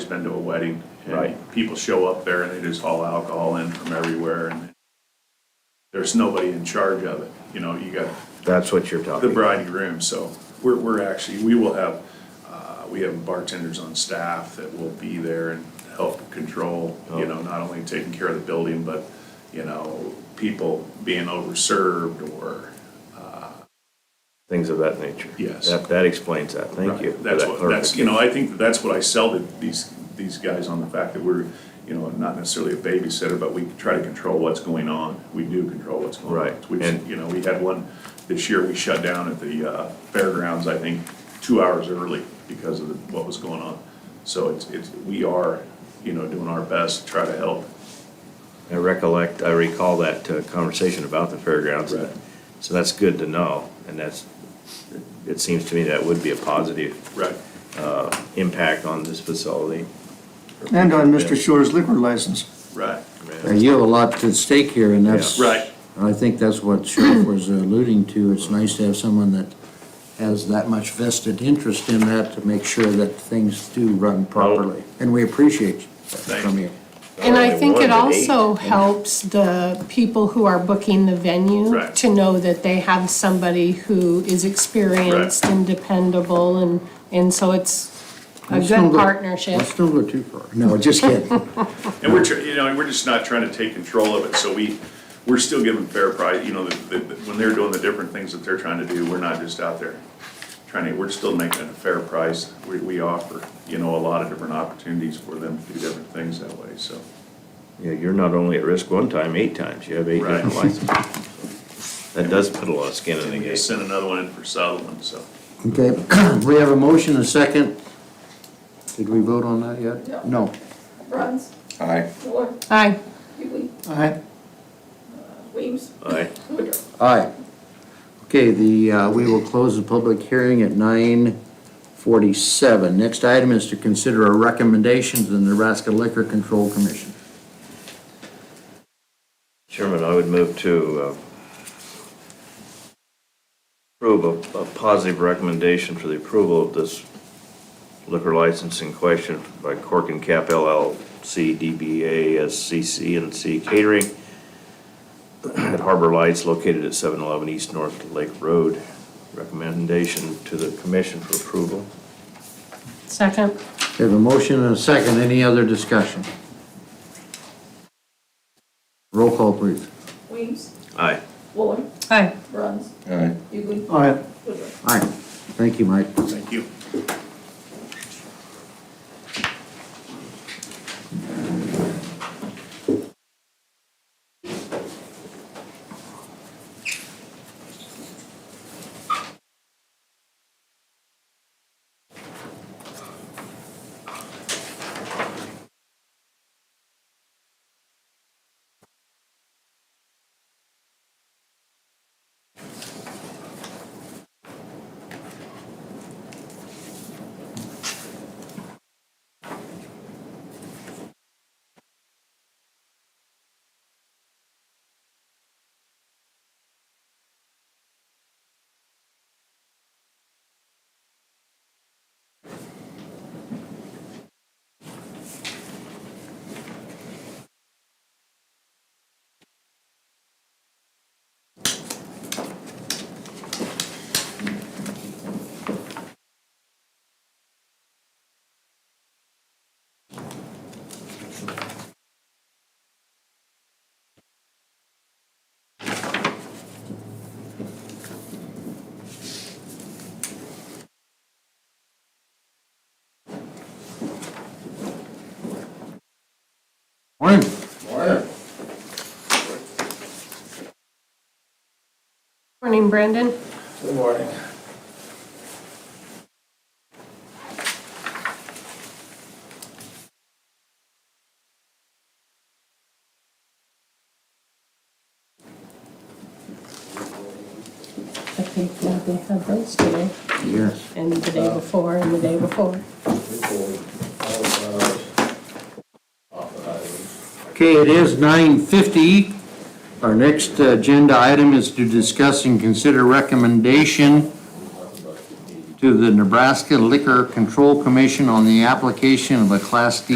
been to a wedding. and Right. People show up there and they just haul alcohol in from everywhere and there's nobody in charge of it. You know, you got That's what you're the talking about. bride and groom, so we're, we're actually, we will have, uh, we have bartenders on staff that will be there and help control, you know, not only taking care of the building, but, you know, people being overserved or, Things of that nature. Yes. That, that explains that. Thank you. for That's that what, that's, you clarification. know, I think that that's what I sell to these, these guys on the fact that we're, you know, not necessarily a babysitter, but we try to control what's going on. We do control what's going on. Right, We've, and- you know, we had one, this year we shut down at the uh, fairgrounds, I think, two hours early because of the- what was going on. So it's, it's, we are, you know, doing our best to try to help. I recollect, I recall that uh, conversation about the fairgrounds. Right. So that's good to know, and that's, it seems to me that would be a positive Right. uh, impact on this facility. And on Mr. Shore's liquor license. Right. Uh, You have a lot at stake here, and that's. Yeah. Right. and I think that's what Sheriff was uh, alluding to. It's nice to have someone that has that much vested interest in that to make sure that things do run properly. Oh. And we appreciate that from you. And I Only think one it to eight. also helps the people who are booking the venue Right. to know that they have somebody who is experienced and dependable and, and so it's a Let's don't good go- partnership. Let's don't go too far. No, just kidding. And we're, tr- you know, and we're just not trying to take control of it, so we, we're still giving fair price, you know, the, the, when they're doing the different things that they're trying to do, we're not just out there trying to, we're still making it a fair price. We, we offer, you know, a lot of different opportunities for them to do different things that way, so. Yeah, you're not only at risk one time, eight times, you have eight Right. different licenses. That does put a lot of skin in the And they game. sent another one in for Sutherland, so. Okay, we have a motion, a second. Did we vote on that yet? No. Bruns, Aye. Miller, Aye. Hughley, Aye. Weems, Aye. Woodruff. Aye. Okay, the, uh, we will close the public hearing at nine forty-seven. Next item is to consider a recommendation to the Nebraska Liquor Control Commission. Chairman, I would move to uh, approve a, a positive recommendation for the approval of this liquor license in question by Cork and Cap LLC, DBA SCC and C Catering at Harbor Lights located at 711 East North Lake Road. Recommendation to the commission for approval. Second. We have a motion and a second. Any other discussion? Roll call, please. Weems, Aye. Wooler, Aye. Bruns, Aye. Hughley, Aye. Woodruff. Aye. Thank you, Mike. Thank you. Morning. Morning, Brandon. I think uh, they had those today Yes. and the day before and the day before. Okay, it is nine fifty. Our next agenda item is to discuss and consider recommendation to the Nebraska Liquor Control Commission on the application of a Class D